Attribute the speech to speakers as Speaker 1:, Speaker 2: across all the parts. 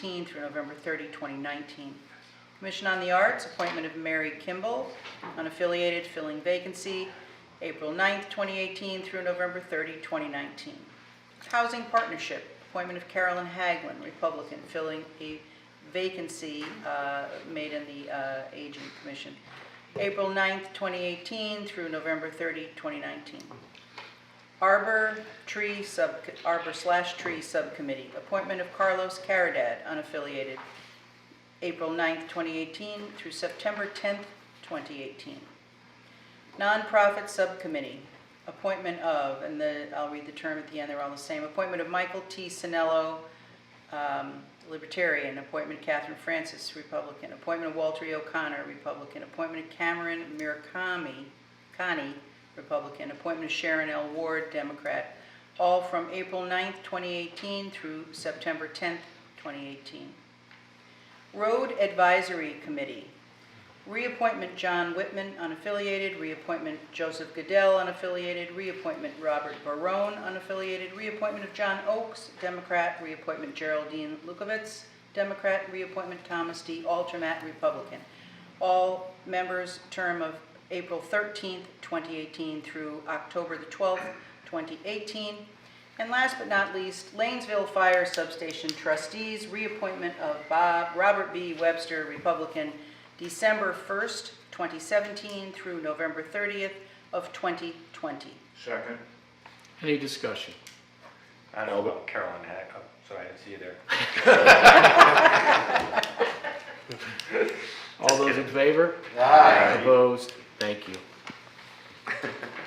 Speaker 1: 16 through November 30, 2019. Commission on the Arts, appointment of Mary Kimball, unaffiliated, filling vacancy, April 9, 2018 through November 30, 2019. Housing Partnership, appointment of Carolyn Haglin, Republican, filling a vacancy uh, made in the uh, Aging Commission, April 9, 2018 through November 30, 2019. Arbor Tree Sub, Arbor slash Tree Subcommittee, appointment of Carlos Caridad, unaffiliated, April 9th, 2018 through September 10th, 2018. Nonprofit Subcommittee, appointment of, and the, I'll read the term at the end, they're all the same, appointment of Michael T. Sinello, um, Libertarian, appointment Catherine Francis, Republican, appointment of Walter E. O'Connor, Republican, appointment of Cameron Mirakami, Connie, Republican, appointment of Sharon L. Ward, Democrat, all from April 9th, 2018 through September 10th, 2018. Road Advisory Committee, reappointment John Whitman, unaffiliated, reappointment Joseph Goodell, unaffiliated, reappointment Robert Barone, unaffiliated, reappointment of John Oakes, Democrat, reappointment Geraldine Lukovitz, Democrat, reappointment Thomas D. Altermat, Republican. All members, term of April 13th, 2018 through October the 12th, 2018. And last but not least, Lanesville Fire Substation Trustees, reappointment of Bob, Robert B. Webster, Republican, December 1st, 2017 through November 30th of 2020.
Speaker 2: Second.
Speaker 3: Any discussion?
Speaker 2: I know about Carolyn Hack, oh, sorry, I didn't see you there.
Speaker 3: All those in favor?
Speaker 2: Aye.
Speaker 3: Opposed? Thank you.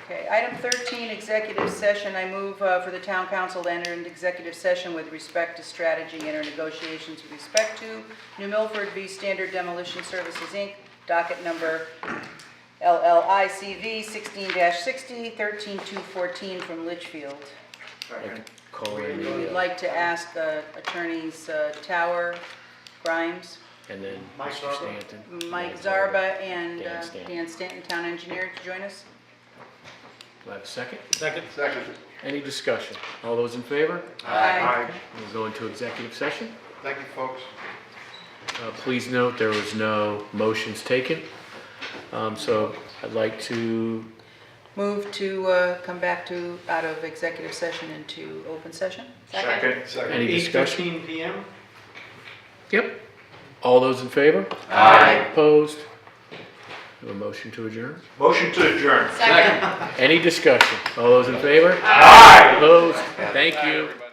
Speaker 1: Okay, item 13, executive session. I move uh, for the town council to enter into executive session with respect to strategy and our negotiations with respect to New Milford v. Standard Demolition Services, Inc., docket number LLICV 16-60, 13214 from Litchfield.
Speaker 2: Second.
Speaker 3: Call in
Speaker 1: We would
Speaker 3: the, uh,
Speaker 1: like to ask uh, attorneys uh, Tower, Grimes,
Speaker 3: and then
Speaker 2: Mike
Speaker 3: Mr.
Speaker 2: Zarba.
Speaker 3: Stanton.
Speaker 1: Mike Zarba, and
Speaker 3: Dan
Speaker 1: uh,
Speaker 3: Stanton.
Speaker 1: Dan Stanton, town engineer, to join us.
Speaker 3: Do I have a second?
Speaker 2: Second. Second.
Speaker 3: Any discussion? All those in favor?
Speaker 1: Aye.
Speaker 3: We'll go into executive session.
Speaker 2: Thank you, folks.
Speaker 3: Uh, Please note, there was no motions taken. Um, So I'd like to,
Speaker 1: Move to uh, come back to, out of executive session into open session?
Speaker 2: Second. Second.
Speaker 3: any discussion?
Speaker 4: 8:15 PM?
Speaker 3: Yep. All those in favor?
Speaker 2: Aye.
Speaker 3: Opposed? Do a motion to adjourn?
Speaker 2: Motion to adjourn.
Speaker 3: Any discussion? All those in favor?
Speaker 2: Aye.
Speaker 3: Opposed? Thank you.